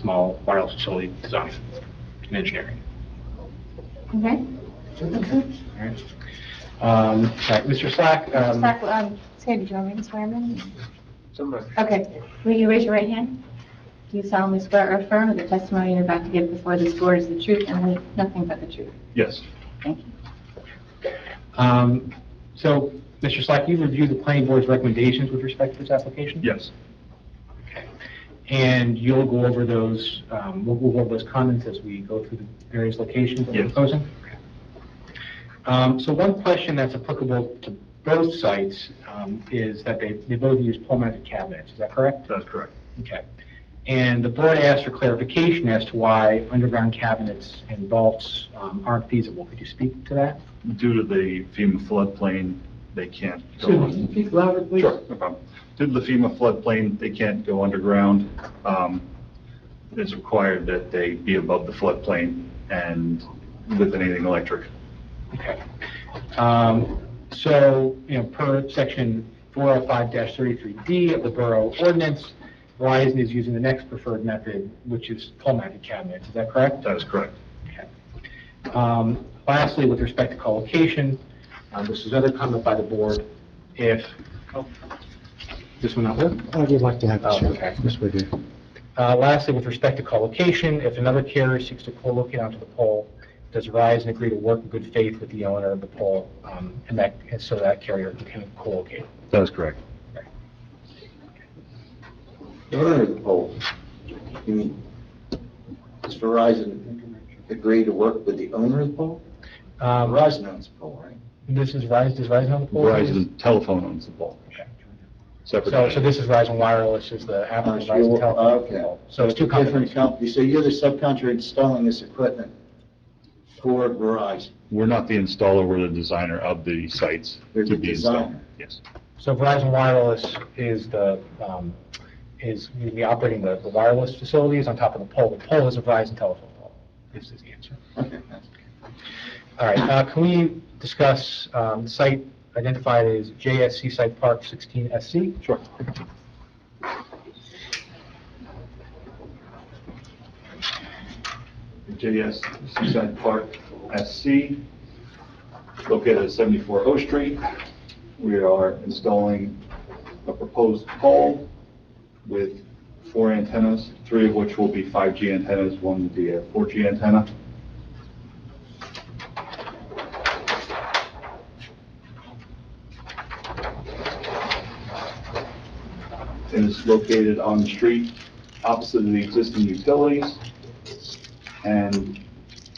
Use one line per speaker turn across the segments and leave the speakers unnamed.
small wireless facility design and engineering.
Okay.
All right. Um, Right, Mr. Slack, um,
Slack, um, Sandy, do you want me to swear him in?
Somebody.
Okay. Will you raise your right hand? Do you solemnly swear or affirm that the testimony you're about to give before this board is the truth and the- nothing but the truth?
Yes.
Thank you.
Um, So, Mr. Slack, you reviewed the planning board's recommendations with respect to this application?
Yes,
And you'll go over those, um, we'll go over those comments as we go through the various locations that we're
Yes.
proposing? Um, So one question that's applicable to both sites um, is that they, they both use pole-mounted cabinets, is that correct?
that's correct.
Okay. And the board asked for clarification as to why underground cabinets and vaults um, aren't feasible. Could you speak to that?
Due to the FEMA floodplain, they can't go on.
Speak louder, please.
Sure, no problem. Due to the FEMA floodplain, they can't go underground. Um, It's required that they be above the floodplain and with anything electric.
Okay. Um, So, you know, per section 405-33D of the Borough Ordinance, Verizon is using the next preferred method, which is pole-mounted cabinets. Is that correct?
That is correct.
Okay. Um, Lastly, with respect to collocation, uh, this is another comment by the board. If, oh, this one not work?
I would like to have
Oh,
it, sure.
okay.
Yes, we do.
Uh, Lastly, with respect to co-location, if another carrier seeks to co-locate onto the pole, does Verizon agree to work in good faith with the owner of the pole um, and that, and so that carrier can co-locate?
That is correct.
The owner of the pole, you mean, does Verizon agree to work with the owner of the pole?
Um,
Uh, Verizon owns the pole, right?
This is Verizon, does Verizon have the pole?
Verizon Telephone owns the pole. Separate.
So, so this is Verizon Wireless is the app
Uh,
of
so
Verizon
you're-
Telephone.
okay.
So it's two companies.
Different company, so you're the subcontractor installing this equipment for Verizon?
We're not the installer, we're the designer of the sites
They're
to
the
be installed.
designer.
Yes,
So Verizon Wireless is the, um, is the operating the the wireless facilities on top of the pole. The pole is a Verizon telephone pole. This is the answer.
Okay, that's-
All right, uh, can we discuss, um, site identified as JSC Site Park 16SC?
sure. JS Seaside Park SC, located at 74 O Street. We are installing a proposed pole with four antennas, three of which will be 5G antennas, one will be a 4G antenna. It is located on the street opposite of the existing utilities and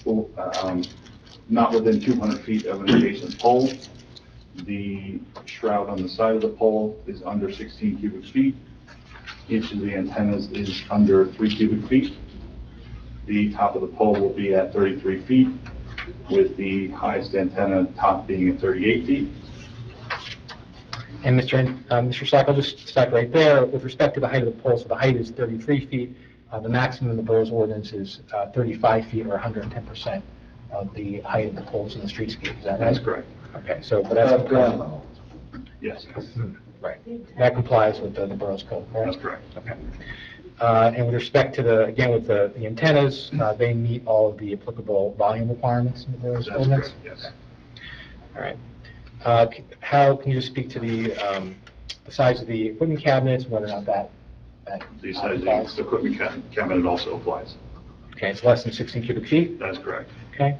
um, not within 200 feet of an adjacent pole. The shroud on the side of the pole is under 16 cubic feet. Each of the antennas is under 3 cubic feet. The top of the pole will be at 33 feet, with the highest antenna top being at 38 feet.
And Mr. An- uh, Mr. Slack, I'll just stop right there. With respect to the height of the pole, so the height is 33 feet. Uh, The maximum in the borough's ordinance is uh, 35 feet or 110% of the height of the poles in the streetscape. Is that right?
correct.
Okay, so, but that's, Hmm,
Above ground level.
Yes,
right. That complies with uh, the the borough's code,
that's
correct?
correct.
Okay. Uh, And with respect to the, again, with the the antennas, uh, they meet all of the applicable volume requirements in the borough's
That's
ordinance?
correct, yes.
All right. Uh, c- Hal, can you just speak to the um, the size of the equipment cabinets, whether or not that? that
The size
applies?
of the equipment ca- cabinet also applies.
Okay, it's less than 16 cubic feet,
That's correct.
okay.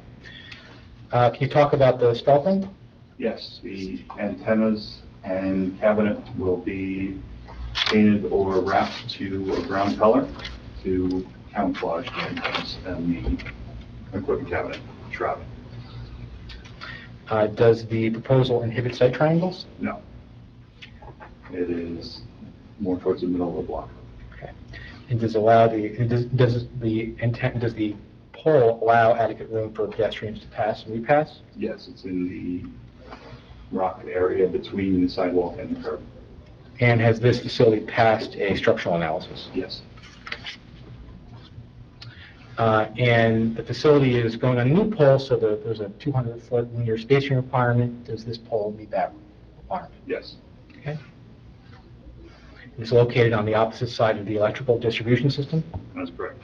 Uh, Can you talk about the stealthing?
Yes, the antennas and cabinet will be painted or wrapped to a brown color to camouflage the antennas and the equipment cabinet shroud.
Uh, Does the proposal inhibit site triangles?
No. It is more towards the middle of the block.
And does allow the, and does- does the intent, does the pole allow adequate room for pedestrians to pass and repass?
Yes, it's in the rock area between the sidewalk and the curb.
And has this facility passed a structural analysis?
Yes,
Uh, And the facility is going on a new pole, so the- there's a 200-foot linear spacing requirement. Does this pole meet that requirement?
yes,
Okay. is located on the opposite side of the electrical distribution system?
That's correct.